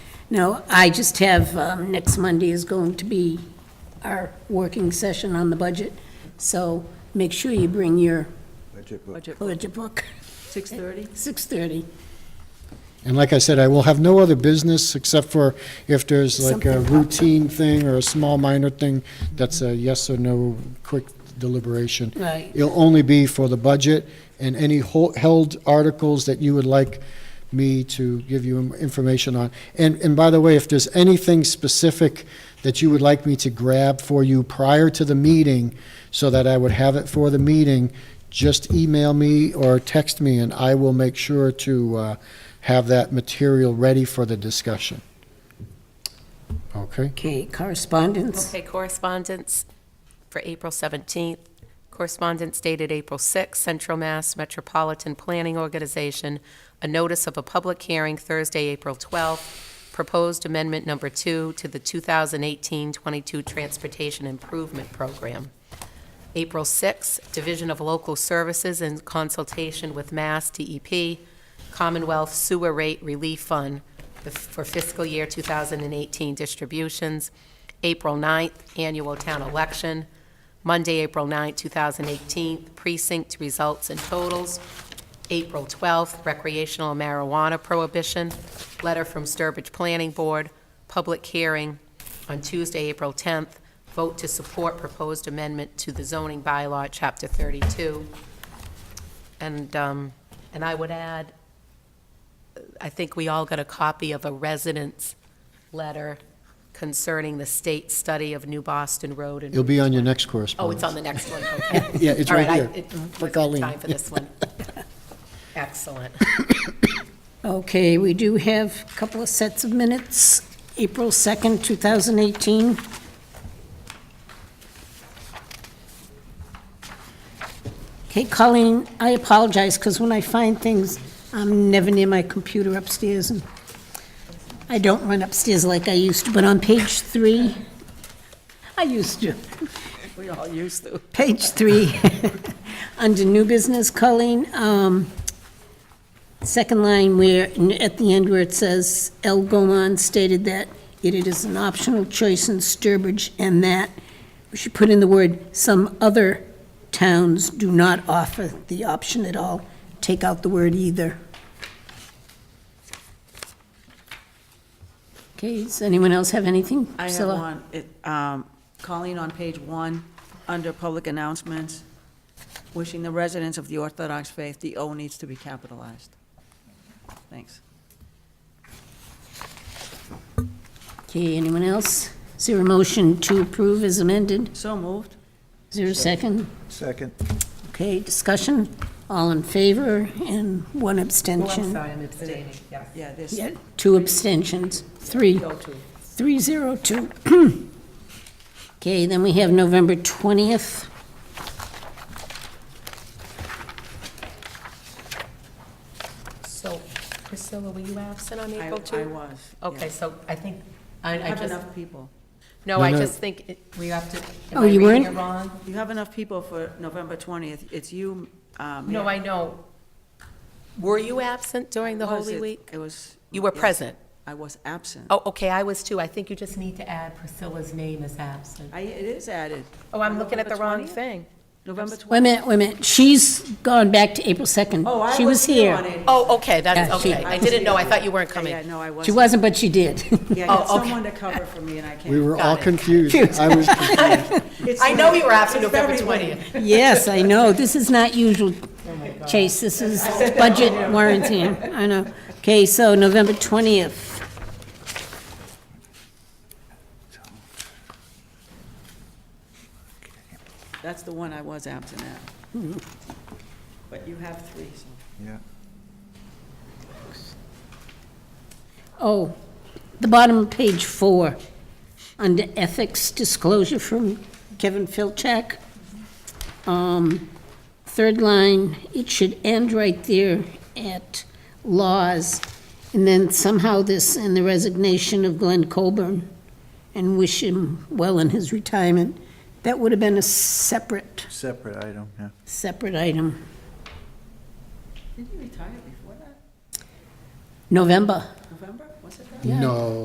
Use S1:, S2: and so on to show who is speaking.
S1: No, I just have, um, next Monday is going to be our working session on the budget, so make sure you bring your
S2: Budget book.
S3: Budget,
S1: budget book,
S3: 6:30?
S1: 6:30.
S4: And like I said, I will have no other business except for if there's like a
S1: Something popped up.
S4: routine thing or a small minor thing, that's a yes or no quick deliberation.
S1: Right.
S4: It'll only be for the budget and any hol- held articles that you would like me to give you im- information on. And, and by the way, if there's anything specific that you would like me to grab for you prior to the meeting, so that I would have it for the meeting, just email me or text me, and I will make sure to uh, have that material ready for the discussion. Okay?
S1: Okay, correspondence,
S5: Okay, correspondence for April 17th. Correspondence dated April 6th, Central Mass Metropolitan Planning Organization, a notice of a public hearing Thursday, April 12th, proposed amendment number two to the 2018-22 Transportation Improvement Program. April 6th, Division of Local Services in consultation with Mass DEP, Commonwealth Sewer Rate Relief Fund for fiscal year 2018 distributions. April 9th, annual town election, Monday, April 9th, 2018, precinct results and totals, April 12th, recreational marijuana prohibition, letter from Sturbridge Planning Board, public hearing on Tuesday, April 10th, vote to support proposed amendment to the zoning bylaw, Chapter 32. And, um, and I would add, I think we all got a copy of a resident's letter concerning the state study of New Boston Road and.
S4: It'll be on your next
S5: Oh, it's
S4: correspondence.
S5: on the next one, okay.
S4: Yeah, it's
S5: All
S4: right
S5: I-
S4: here.
S5: it
S4: For
S5: wasn't
S4: Colleen.
S5: Time for this one. Excellent.
S1: okay, we do have a couple of sets of minutes, April 2nd, 2018. Okay, Colleen, I apologize, because when I find things, I'm never near my computer upstairs, and I don't run upstairs like I used to, but on page three, I used to.
S3: We all used to.
S1: Page three, under new business, Colleen, um, second line where, at the end where it says, "El Goman stated that it is an optional choice in Sturbridge and that," we should put in the word, "some other towns do not offer the option at all." Take out the word either. Okay, does anyone else have anything?
S5: uh,
S3: I have
S1: Priscilla?
S3: one. It, um, Colleen on page one, under public announcements, wishing the residents of the Orthodox faith, the O needs to be capitalized. Thanks.
S1: Okay, anyone else? Is there a motion to approve as amended?
S3: So moved.
S1: Is there a second?
S2: Second.
S1: Okay, discussion, all in favor, and one abstention.
S3: I'm abstaining, yeah. Yeah, this,
S1: Yeah, two abstentions, three,
S3: go to.
S1: three zero two. Okay, then we have November 20th.
S5: So Priscilla, were you absent on
S3: I I
S5: April 2?
S3: was. yeah.
S5: Okay, so I think, I,
S3: You
S5: I
S3: have
S5: just,
S3: enough people.
S5: no,
S4: No,
S5: I
S4: no.
S5: just think it- we have to,
S1: Oh,
S5: am
S1: you
S5: I reading
S1: weren't?
S5: it wrong?
S3: You have enough people for November 20th. It's you, um.
S5: No, I know. Were you absent during the
S3: was
S5: Holy
S3: it-
S5: Week?
S3: It was.
S5: You were
S3: yes,
S5: present.
S3: I was absent.
S5: Oh, okay, I was too. I think you just need to add Priscilla's name as absent.
S3: I, it is added.
S5: Oh, I'm looking at the wrong
S3: November 20th?
S5: thing.
S3: November 20th.
S1: Wait a minute, wait a minute, she's gone back to April 2nd.
S3: Oh, I
S1: She was
S3: here on
S1: here.
S3: it.
S5: Oh, okay, that's,
S1: Yeah, she-
S5: okay. I didn't know. I thought you weren't coming.
S3: Yeah, no, I
S1: She
S3: wasn't.
S1: wasn't, but she did.
S3: Yeah, I got
S5: Oh, okay.
S3: someone to cover for me and I
S4: We
S3: can't.
S4: were all
S5: Got it.
S4: confused. I was
S3: It's
S5: I know
S3: like-
S5: you were absent
S3: it's
S5: November
S3: everywhere.
S5: 20th.
S1: Yes, I know, this is not usual, Chase, this is budget warranty, I know. Okay, so November 20th.
S3: That's the one I was absent at. But you have three, so.
S2: Yeah.
S1: Oh, the bottom of page four, under ethics disclosure from Kevin Filczak. Um, Third line, it should end right there at laws. And then somehow this, and the resignation of Glenn Colburn, and wish him well in his retirement. That would have been a separate,
S2: Separate item, yeah.
S1: separate item.
S3: Didn't you retire before that?
S1: November.
S3: November? Was it that?
S4: No.